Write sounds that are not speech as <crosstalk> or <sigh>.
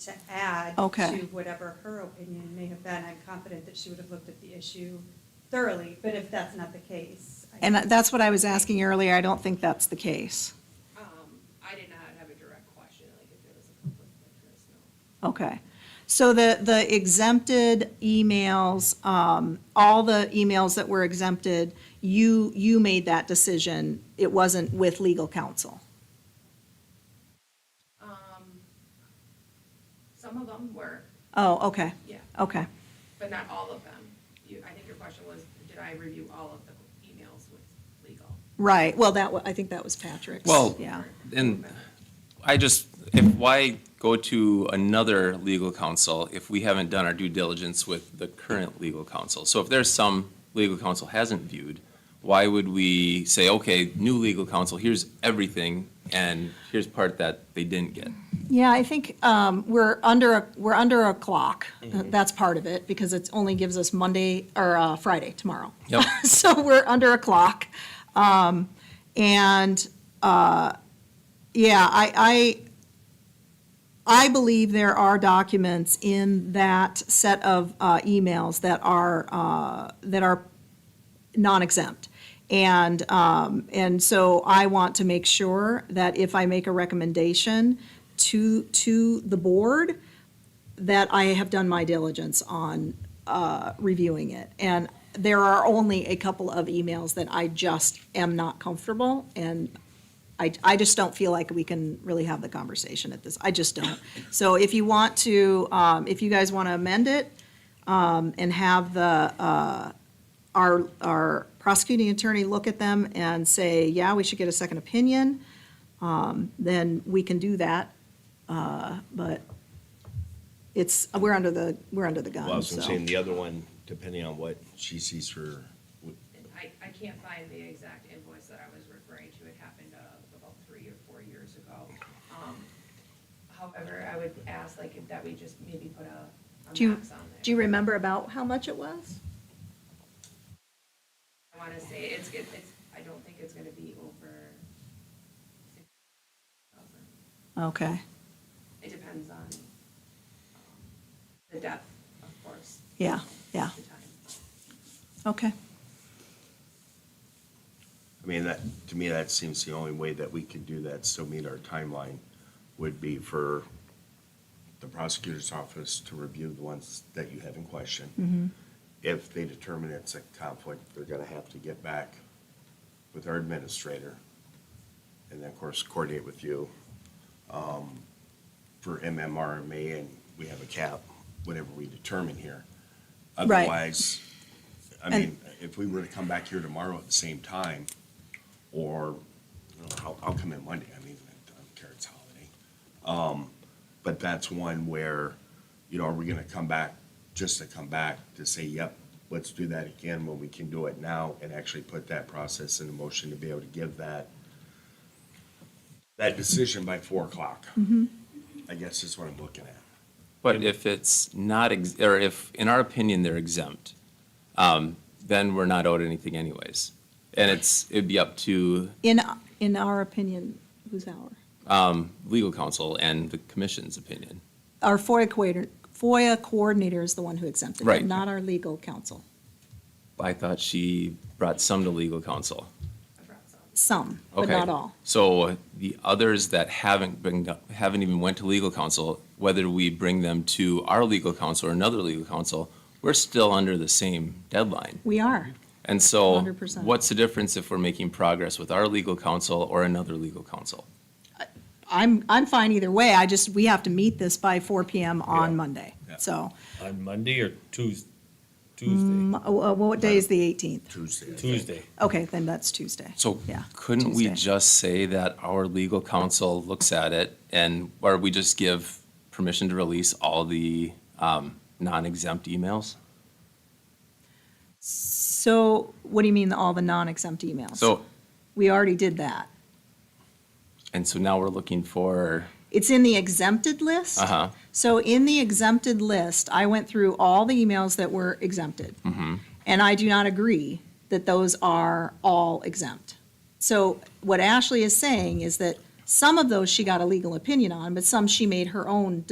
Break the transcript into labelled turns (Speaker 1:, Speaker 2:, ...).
Speaker 1: to add
Speaker 2: Okay.
Speaker 1: to whatever her opinion may have been. I'm confident that she would have looked at the issue thoroughly, but if that's not the case. I-
Speaker 2: And that's what I was asking earlier, I don't think that's the case.
Speaker 3: Um, I did not have a direct question, like if there was a conflict of interest, no.
Speaker 2: Okay. So the, the exempted emails, um, all the emails that were exempted, you, you made that decision. It wasn't with legal counsel.
Speaker 3: Um, some of them were,
Speaker 2: Oh, okay,
Speaker 3: yeah,
Speaker 2: okay.
Speaker 3: but not all of them. You, I think your question was, did I review all of the emails with legal?
Speaker 2: Right, well, that, wa- I think that was Patrick's.
Speaker 4: Well,
Speaker 2: Yeah,
Speaker 4: and I just, if, why go to another legal counsel if we haven't done our due diligence with the current legal counsel? So if there's some legal counsel hasn't viewed, why would we say, okay, new legal counsel, here's everything, and here's part that they didn't get?
Speaker 2: yeah, I think, um, we're under, a we're under a clock. Uh, That's part of it, because it only gives us Monday, or, uh, Friday, tomorrow.
Speaker 4: Yep.
Speaker 2: <laughs> so we're under a clock. Um, and, uh, yeah, I, I, I believe there are documents in that set of, uh, emails that are, uh, that are non-exempt. And, um, and so I want to make sure that if I make a recommendation to, to the board, that I have done my diligence on uh, reviewing it. And there are only a couple of emails that I just am not comfortable, and I, I just don't feel like we can really have the conversation at this. I just don't. So if you want to, um, if you guys want to amend it um, and have the, uh, our, our prosecuting attorney look at them and say, yeah, we should get a second opinion, um, then we can do that. Uh, But it's, we're under the, we're under the
Speaker 5: Well, I
Speaker 2: gun,
Speaker 5: was
Speaker 2: Um, so.
Speaker 5: gonna say, and the other one, depending on what she sees for,
Speaker 3: And I, I can't find the exact invoice that I was referring to. It happened uh, about three or four years ago. Um, However, I would ask like if that we just maybe put a,
Speaker 2: Do
Speaker 3: a
Speaker 2: you,
Speaker 3: max on there.
Speaker 2: do you remember about how much it was?
Speaker 3: I want to say it's, good- it's, I don't think it's going to be over six thousand.
Speaker 2: Okay,
Speaker 3: It depends on um, the depth, of course.
Speaker 2: Yeah, yeah.
Speaker 3: The time.
Speaker 2: okay.
Speaker 5: I mean, that, to me, that seems the only way that we could do that, still meet our timeline, would be for the prosecutor's office to review the ones that you have in
Speaker 2: Mm-hmm.
Speaker 5: question. If they determine it's a conflict, they're gonna have to get back with our administrator, and then, of course, coordinate with you, um, for MMRMA, and we have a cap, whatever we determine here.
Speaker 2: Right.
Speaker 5: Otherwise, I
Speaker 2: And-
Speaker 5: mean, if we were to come back here tomorrow at the same time, or, you know, I'll, I'll come in Monday, I mean, I don't care, it's holiday. Um, but that's one where, you know, are we gonna come back, just to come back to say, yep, let's do that again when we can do it now and actually put that process in motion to be able to give that, that decision by four o'clock? I guess is what I'm looking at.
Speaker 4: But if it's not, ex- or if, in our opinion, they're exempt, um, then we're not owed anything anyways. And it's, it'd be up to
Speaker 2: In, in our opinion, who's our?
Speaker 4: legal counsel and the commission's opinion.
Speaker 2: Our FOIA coordinator, FOIA coordinator is the one who exempted
Speaker 4: Right.
Speaker 2: it, not our legal counsel.
Speaker 4: I thought she brought some to legal counsel.
Speaker 3: I brought some.
Speaker 2: Some, but
Speaker 4: Okay.
Speaker 2: not all.
Speaker 4: So the others that haven't been, haven't even went to legal counsel, whether we bring them to our legal counsel or another legal counsel, we're still under the same deadline.
Speaker 2: We are.
Speaker 4: And so
Speaker 2: 100%.
Speaker 4: what's the difference if we're making progress with our legal counsel or another legal counsel?
Speaker 2: I'm, I'm fine either way. I just, we have to meet this by four PM on Monday.
Speaker 5: Yeah.
Speaker 2: So,
Speaker 6: On Monday or Tues, Tuesday?
Speaker 2: uh, uh, what day is the eighteenth?
Speaker 5: Tuesday. I think.
Speaker 6: Tuesday.
Speaker 2: Okay, then that's Tuesday.
Speaker 4: So
Speaker 2: Yeah,
Speaker 4: couldn't we
Speaker 2: Tuesday.
Speaker 4: just say that our legal counsel looks at it and, or we just give permission to release all the um, non-exempt emails?
Speaker 2: So what do you mean, all the non-exempt emails?
Speaker 4: So,
Speaker 2: We already did that.
Speaker 4: and so now we're looking for,
Speaker 2: It's in the exempted list.
Speaker 4: uh-huh,
Speaker 2: So in the exempted list, I went through all the emails that were exempted.
Speaker 4: Mm-hmm.
Speaker 2: And I do not agree that those are all exempt. So what Ashley is saying is that some of those she got a legal opinion on, but some she made her own